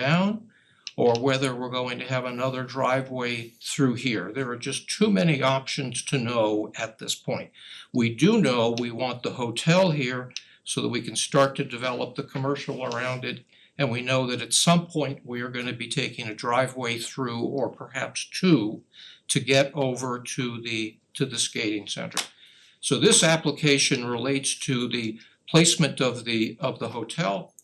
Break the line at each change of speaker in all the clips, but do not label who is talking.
down or whether we're going to have another driveway through here. There are just too many options to know at this point. We do know we want the hotel here so that we can start to develop the commercial around it. And we know that at some point, we are gonna be taking a driveway through or perhaps two to get over to the to the skating center. So this application relates to the placement of the of the hotel.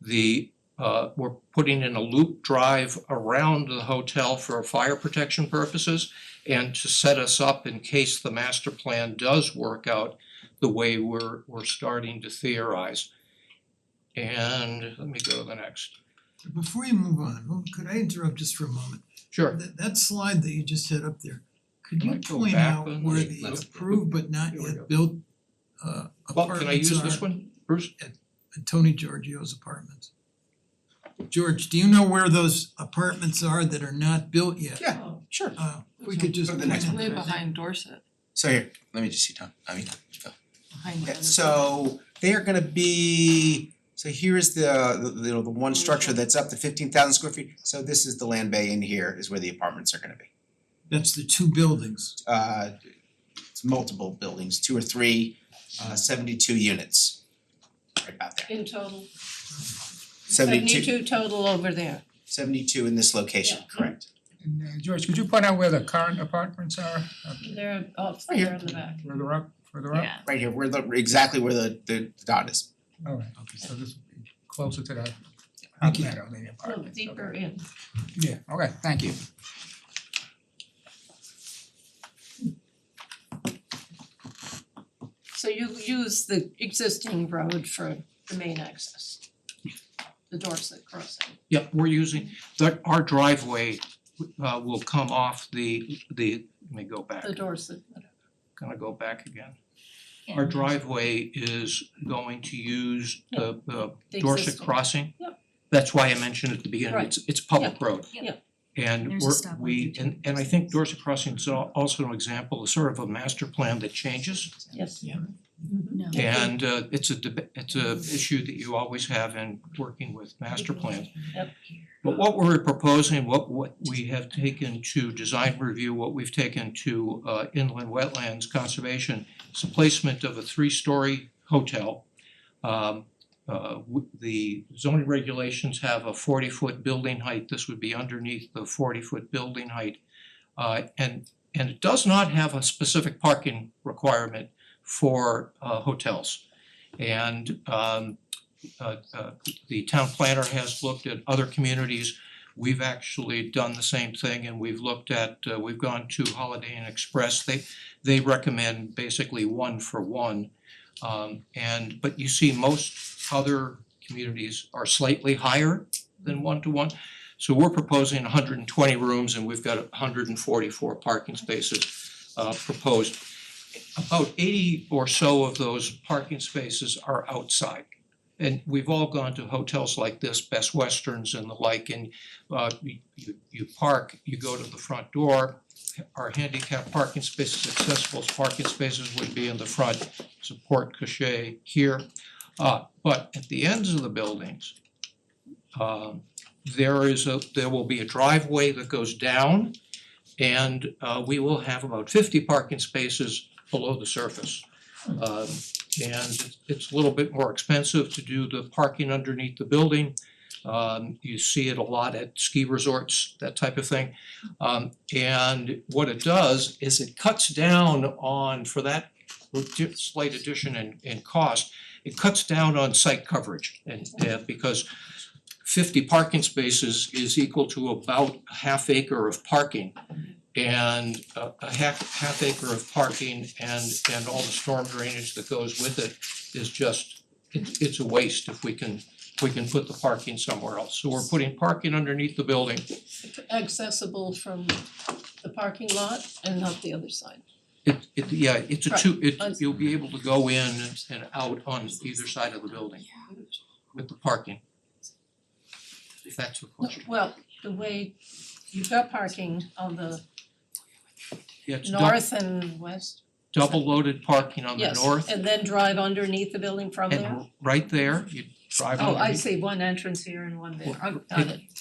The uh we're putting in a loop drive around the hotel for fire protection purposes and to set us up in case the master plan does work out the way we're we're starting to theorize. And let me go to the next.
Before you move on, well, could I interrupt just for a moment?
Sure.
That that slide that you just had up there, could you
Might go
point
back
out
one.
where the
Let's-
approved but not
Here we go.
yet built uh
Well, can I
apartments
use
are
this one, Bruce?
at Tony Giorgio's apartments? George, do you know where those apartments are that are not built yet?
Yeah. Sure.
Uh we could just
Go
point
to the next
out.
Way behind Dorset,
So here, let me just see Tom, I mean,
behind.
okay,
Dorset.
so they are gonna be, so here is the, the, you know, the one structure that's up to fifteen thousand square feet. So this is the land bay in here is where the apartments are gonna be.
That's the two buildings.
Uh, it's multiple buildings, two or three, uh, seventy-two units. Right about there,
In total,
72
seventy-two total over there.
72 in this location,
Yeah.
correct?
And uh, George, could you point out where the current apartments are, uh,
They're up
Right here.
there in the back.
further up, further up?
Yeah.
Right here, where the, exactly where the, the dot is.
All right, okay, so this will be closer to the
Thank you.
outlet of the apartments,
A little
okay.
deeper in.
Yeah, okay, thank you.
So you use the existing road for the main access. The Dorset crossing.
Yeah, we're using, that our driveway uh will come off the the, let me go back.
The Dorset,
Can I go back again?
Yeah.
Our driveway is going to use the the
the
Dorset
existing.
crossing.
Yep.
That's why I mentioned at the beginning,
Right.
it's it's public road.
Yep.
Yep.
And
There's a
we're,
stop
we,
line for
and and I think Dorset Crossing is al- also an example, of sort of a master plan that changes.
Yes.
Yeah.
Mhm.
No.
And uh it's a deb- it's a issue that you always have in working with master plans.
Yep.
But what we're proposing, what what we have taken to design review, what we've taken to uh inland wetlands conservation is the placement of a three-story hotel. Um uh w- the zoning regulations have a forty-foot building height, this would be underneath the forty-foot building height. Uh and and it does not have a specific parking requirement for uh hotels. And um uh uh the town planner has looked at other communities. We've actually done the same thing and we've looked at, uh, we've gone to Holiday Inn Express. They they recommend basically one for one. Um and but you see most other communities are slightly higher than one to one. So we're proposing hundred and twenty rooms and we've got hundred and forty-four parking spaces uh proposed. About eighty or so of those parking spaces are outside and we've all gone to hotels like this, Best Westerns and the like, and uh you you you park, you go to the front door. Our handicap parking spaces, accessible parking spaces would be in the front, support cachet here. Uh but at the ends of the buildings, um there is a, there will be a driveway that goes down. And uh we will have about fifty parking spaces below the surface. Um and it's- it's a little bit more expensive to do the parking underneath the building. Um you see it a lot at ski resorts, that type of thing. Um and what it does is it cuts down on, for that slight addition in in cost, it cuts down on site coverage and uh, because fifty parking spaces is equal to about a half acre of parking. And a a half half acre of parking and and all the storm drainage that goes with it is just it's it's a waste if we can if we can put the parking somewhere else. So we're putting parking underneath the building.
Accessible from the parking lot and not the other side.
It it yeah, it's a
Right.
two, it
Un-
you'll be able to go in and out on either side of the building with the parking. If that's the question.
Well, the way you've got parking on the
Yeah, it's dou-
north and west,
double loaded parking on the
yes,
north
and then drive underneath the building from there?
and r- right there, you So I
Oh, I
would-
see, one entrance here and one there,
Well,
I got it.